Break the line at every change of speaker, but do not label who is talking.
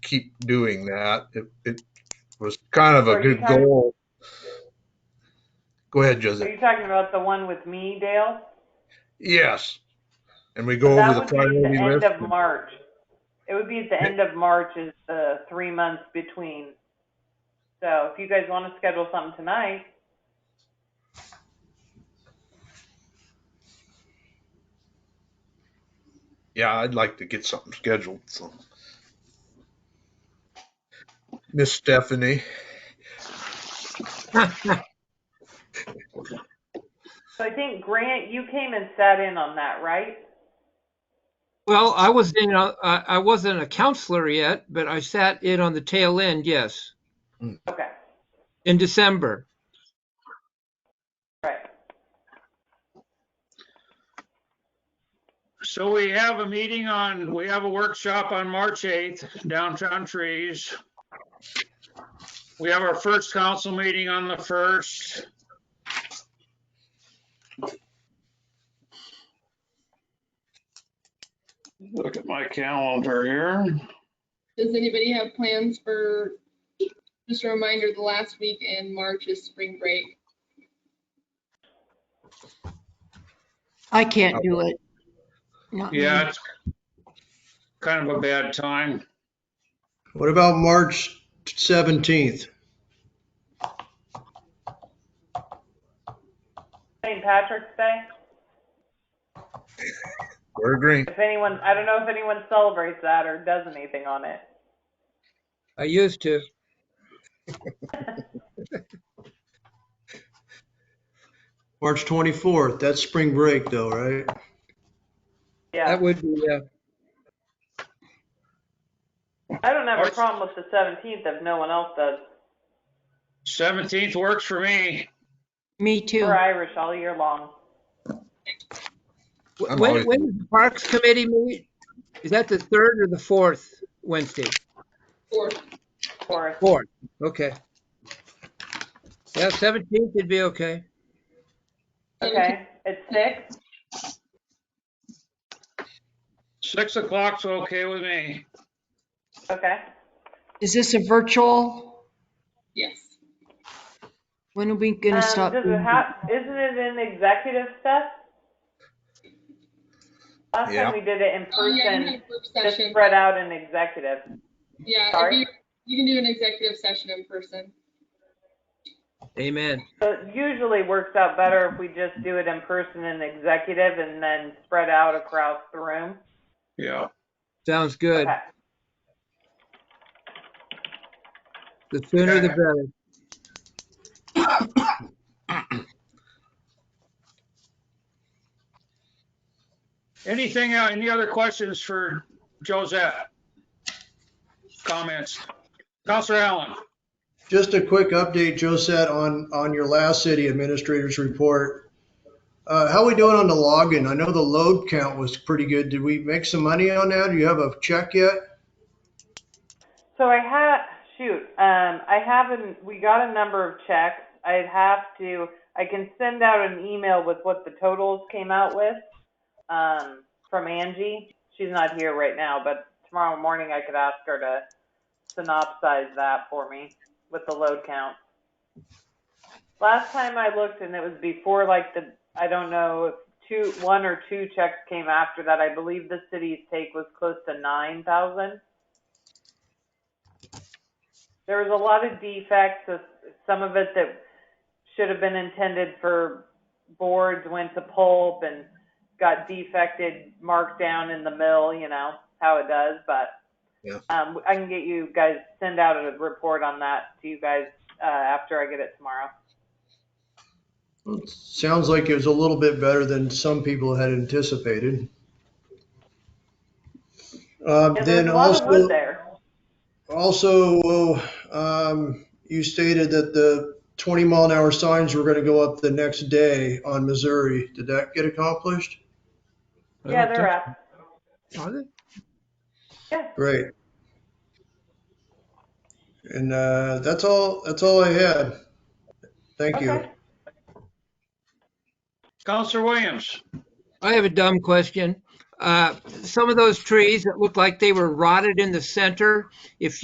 keep doing that. It, it was kind of a
Are you
good
talking-
goal. Go ahead,
Are
Joseph.
you talking about the one with me, Dale?
Yes. And we
So
go
that
over the
would be at the
priority
end
list.
of March. It would be at the end of March is the three months between. So if you guys want to schedule something tonight,
Yeah, I'd like to get something scheduled. So. Miss Stephanie.
so I think Grant, you came and sat in on that, right?
Well, I was in, a- I I wasn't a counselor yet, but I sat in on the tail end, yes,
Okay,
in December.
right.
So we have a meeting on, we have a workshop on March 8th, downtown trees. We have our first council meeting on the 1st. Look at my calendar here.
Does anybody have plans for, just a reminder, the last week in March is spring break.
I can't do it. Not me.
Yeah, it's kind of a bad time.
What about March 17th?
St. Patrick's Day.
We're agreeing.
If anyone, I don't know if anyone celebrates that or does anything on it.
I used to.
March 24th, that's spring break though, right?
Yeah,
That would be, uh,
I don't have a problem with the 17th if no one else does.
17th works for me.
Me too.
We're Irish all year long.
wh-
I'm
when,
always-
when does the Parks Committee meet? Is that the third or the fourth Wednesday?
Or
Or
Fourth, okay. Yeah, 17th would be okay.
okay, it's six.
6 o'clock's okay with me.
Okay.
Is this a virtual?
Yes.
When are we gonna
Um,
stop?
Does
doing
it
that?
have, isn't it in executive stuff? Last
Yeah.
time we did it in
Oh, yeah, you can
person,
have work
just
session.
spread out in executive.
Yeah, if
Sorry?
you, you can do an executive session in person.
Amen.
So it usually works out better if we just do it in person in executive and then spread out across the room.
Yeah.
Sounds good.
Okay.
The sooner the better.
Anything, uh, any other questions for Josette? Comments? Counselor Allen?
Just a quick update, Josette, on, on your last city administrator's report. Uh, how we doing on the login? I know the load count was pretty good. Did we make some money on that? Do you have a check yet?
So I had, shoot, um, I haven't, we got a number of checks. I'd have to, I can send out an email with what the totals came out with, um, from Angie. She's not here right now, but tomorrow morning I could ask her to synopsize that for me with the load count. Last time I looked and it was before like the, I don't know, if two, one or two checks came after that. I believe the city's take was close to nine thousand there was a lot of defects. uh, Some of it that should have been intended for boards went to pulp and got defected, marked down in the mill. You know how it does, but
Yeah.
um, I can get you guys send out a report on that to you guys uh, after I get it tomorrow.
Sounds like it was a little bit better than some people had anticipated. Uh,
And
then
there's a lot
also.
of wood there.
Also, um, you stated that the 20 mile an hour signs were going to go up the next day on Missouri. Did that get accomplished?
I
Yeah,
don't
they're up.
think- are they?
Yeah.
Great. And uh, that's all. That's all I had. Thank you.
Okay.
Counselor Williams?
I have a dumb question. Uh, Some of those trees that looked like they were rotted in the center, if